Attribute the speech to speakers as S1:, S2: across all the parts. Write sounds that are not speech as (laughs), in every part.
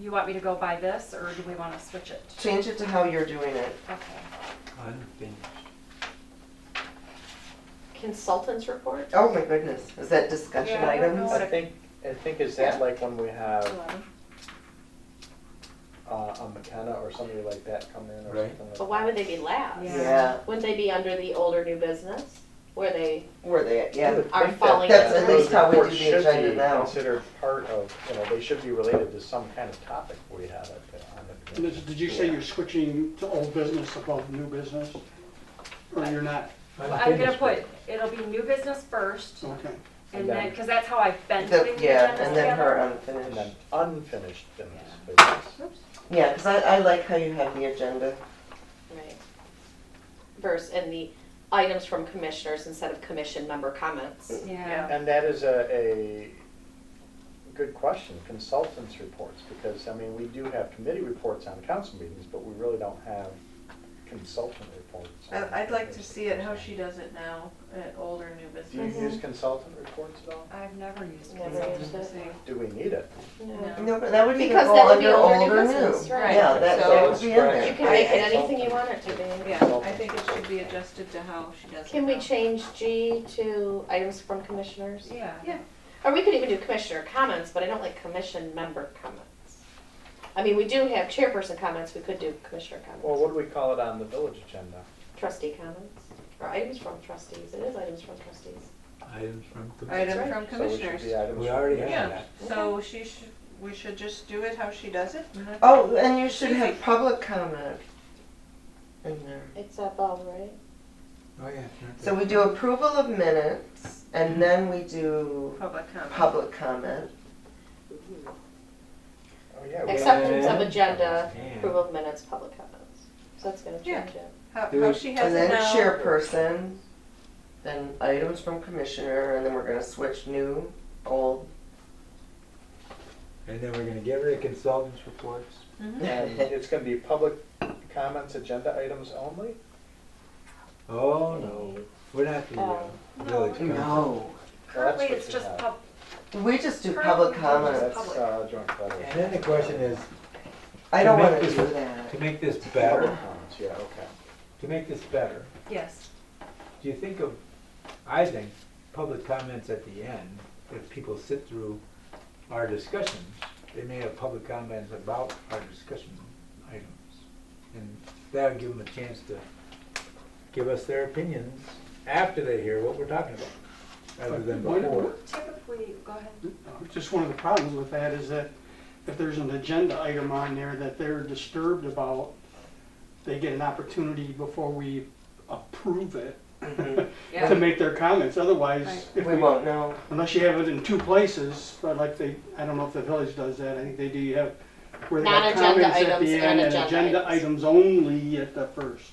S1: you want me to go by this, or do we wanna switch it?
S2: Change it to how you're doing it.
S1: Okay,
S3: Unfinished.
S4: Consultants report?
S2: Oh my goodness, is that discussion
S1: Yeah, I don't know
S2: items?
S1: what
S3: I think, I think is that like when we have
S4: Eleven.
S3: uh, a McKenna or somebody like that come in or
S5: Right.
S3: something like that?
S4: But why would they be last?
S1: Yeah.
S2: Yeah,
S4: Wouldn't they be under the older new business? Where they,
S2: where they at,
S3: I
S2: yeah.
S3: would
S4: Are
S3: think that
S4: falling
S2: That's
S3: that
S2: at least how we do
S3: those
S2: the
S3: should
S2: agenda
S3: be
S2: now.
S3: Considered part of, you know, they should be related to some kind of topic we have at the, on the.
S6: And this- Did you say you're switching to old business above new business? Or you're not?
S1: I'm gonna put, it'll be new business first,
S6: Okay.
S1: and then, cause that's how I've been
S2: The-
S1: putting the
S2: Yeah,
S1: agendas
S2: and then
S1: together.
S2: her
S3: And
S2: unfinished.
S3: then unfinished business. because
S2: Yeah, because I, I like how you have the agenda.
S4: right. Verse, and the items from commissioners instead of commission member comments.
S1: Yeah.
S3: And that is a, a good question, consultants reports, because, I mean, we do have committee reports on council meetings, but we really don't have consultant reports. on-
S7: I- I'd like to see it, how she does it now, at older new
S3: Do you
S7: business.
S3: use consultant reports at all?
S1: I've never used
S4: Never
S1: Pinterest.
S4: used it.
S7: See.
S3: Do we need it?
S4: No.
S2: No, but that would even
S4: Because
S2: go
S4: that would be
S2: under
S4: older
S2: old or new.
S4: business, right.
S2: Yeah, Oh, that,
S7: So
S2: that would
S3: let's
S2: be in
S3: scratch
S2: there.
S4: You can make it
S3: any-
S4: anything you want it to be.
S7: Yeah, I think it should be adjusted to how she does it
S4: Can we
S7: now.
S4: change G to items from commissioners?
S1: Yeah.
S7: Yeah.
S4: Or we could even do commissioner comments, but I don't like commission member comments. I mean, we do have chairperson comments, we could do commissioner
S3: Well,
S4: comments,
S3: what do we call it on the village agenda?
S4: trustee comments, or items from trustees, it is items from trustees.
S5: Items from.
S7: Item
S4: right.
S7: from
S3: So it should
S7: commissioners.
S3: be items.
S5: We already
S7: Yeah.
S5: have that.
S7: So she should, we should just do it how she does it? and that's-
S2: Oh, and you should have public comment in there.
S4: It's above, right?
S5: Oh, yeah.
S2: So we do approval of minutes and then we do
S7: Public comment.
S2: public comment.
S3: Oh, yeah. we
S4: Acceptance of
S3: have-
S4: agenda,
S5: Yeah.
S4: approval of minutes, public comments, so that's gonna
S7: Yeah.
S4: change it.
S7: How,
S5: Do
S7: how
S5: it.
S7: she has
S2: And
S7: it
S2: then
S7: now,
S2: chairperson, then items from commissioner, and then we're gonna switch new,
S1: (laughs)
S2: old.
S5: And then we're gonna give her the consultants reports.
S3: And it's gonna be public comments, agenda items only?
S5: Oh, no, we're not the uh,
S1: No.
S5: village council.
S2: No.
S1: Currently,
S3: what
S1: it's
S3: you
S1: just
S3: have.
S1: pub,
S2: We just do public
S3: That's,
S2: comments.
S1: Public.
S3: uh, joint letters.
S5: Then the question is,
S2: I don't
S5: Make
S2: wanna
S5: this-
S2: do that.
S5: to make this
S3: Public
S5: better,
S3: comments, yeah, okay.
S5: to make this better,
S1: yes,
S5: do you think of, I think, public comments at the end, if people sit through our discussions, they may have public comments about our discussion items. And that'll give them a chance to give us their opinions after they hear what we're talking about, rather than
S6: Why don't-
S5: before.
S1: typically, go ahead.
S6: Uh, Just one of the problems with that is that if there's an agenda item on there that they're disturbed about, they get an opportunity before we approve it to make their comments. Otherwise, if
S2: We
S6: we
S2: won't know.
S6: Unless you have it in two places, but like they, I don't know if the village does that, I think they do, you have, where they have
S4: Non-agenda
S6: comments at
S4: items
S6: the
S4: and
S6: end and
S4: agenda
S6: agenda
S4: items.
S6: items only at the first.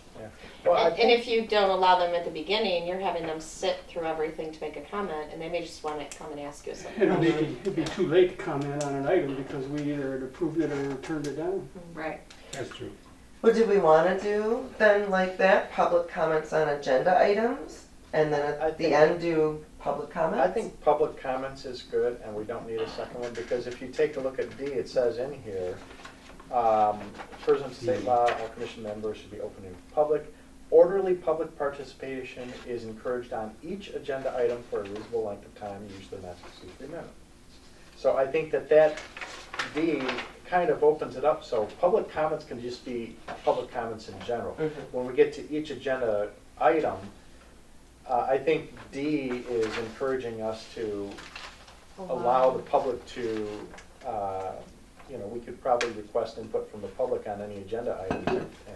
S3: Well, I
S4: And, and
S3: think,
S4: if you don't allow them at the beginning, you're having them sit through everything to make a comment, and they may just wanna come and ask you something.
S6: It'll be, it'd be too late to comment on an item because we either had approved it or turned it down.
S7: right,
S5: That's true.
S2: What do we wanna do then like that? Public comments on agenda items? And then
S3: I
S2: at the
S3: think-
S2: end do public comments?
S3: I think public comments is good, and we don't need a second one, because if you take a look at D, it says in here, um, First and state law, all commission members should be open to public. Orderly public participation is encouraged on each agenda item for a reasonable length of time, usually not to exceed three minutes. So I think that that D kind of opens it up, so public comments can just be public comments in general.
S2: Mhm.
S3: When we get to each agenda item, uh, I think D is encouraging us to
S1: Oh,
S3: allow the public to, uh, you know, we could probably request input from the public on any agenda item.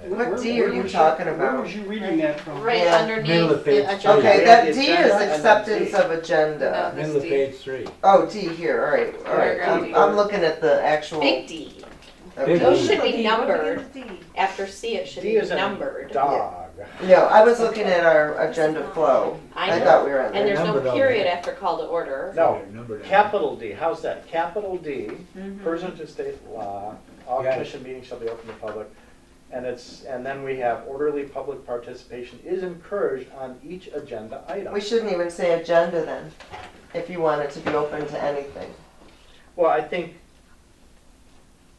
S3: and-
S2: What
S6: Where-
S2: D are
S6: where
S2: you
S6: was
S2: talking
S6: Where
S2: about?
S6: was you reading that
S4: (laughs)
S6: from?
S4: Right
S2: Yeah.
S5: Middle
S4: underneath
S5: of page
S4: the agenda.
S2: Okay,
S3: Yeah,
S2: that
S3: the
S2: D
S3: agenda
S2: is
S3: and then
S2: acceptance
S3: D.
S2: of agenda.
S5: Middle of
S7: Misty.
S5: page three.
S2: Oh, D here, all right, all right.
S7: Paragraph
S2: I'm,
S7: D.
S2: I'm looking at the actual.
S4: Big D,
S2: okay.
S5: Oh,
S4: those should
S7: What do
S4: be
S7: you- what do you
S4: numbered,
S7: think?
S4: after C it should
S3: D
S4: be
S3: is a
S4: numbered.
S3: Dog.
S2: No, I was looking at our agenda flow.
S4: I
S2: I
S4: know,
S2: thought we were on
S4: and
S2: there.
S4: there's no
S5: Numbered on
S4: period
S5: there.
S4: after call to order,
S3: No,
S5: They're numbered out.
S3: Capital D, how's that? Capital D,
S7: Mhm.
S3: pursuant to state law, all
S5: Got it.
S3: commission meetings shall be open to public. And it's, and then we have orderly public participation is encouraged on each agenda item.
S2: We shouldn't even say agenda then, if you want it to be open to anything.
S3: Well, I think